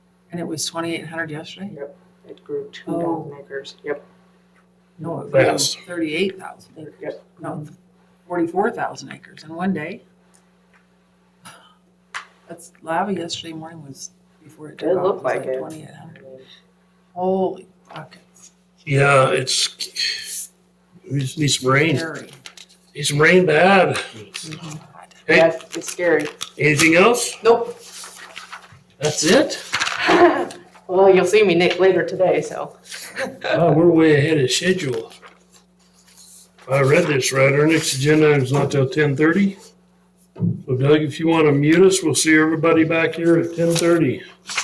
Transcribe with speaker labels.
Speaker 1: And it was twenty-eight hundred yesterday?
Speaker 2: It grew two
Speaker 1: Oh.
Speaker 2: thousand acres. Yep,
Speaker 1: No, it
Speaker 3: Fast.
Speaker 1: was thirty-eight thousand acres.
Speaker 2: Yep.
Speaker 1: No, forty-four thousand acres in one day. That's lava yesterday morning was before it took
Speaker 2: It
Speaker 1: off.
Speaker 2: looked like it.
Speaker 1: Twenty-eight hundred. Holy buckets.
Speaker 3: Yeah, it's, we just need some rain,
Speaker 1: Scary. Mm-hmm.
Speaker 3: need some rain bad.
Speaker 1: God.
Speaker 3: Hey.
Speaker 2: yeah, it's scary.
Speaker 3: Anything else?
Speaker 2: Nope.
Speaker 3: That's it?
Speaker 2: Well, you'll see me, Nick, later today, so.
Speaker 3: Wow, Oh, we're way ahead of schedule. I read this right, our next agenda is not till ten thirty. So Doug, if you wanna mute us, we'll see everybody back here at ten thirty.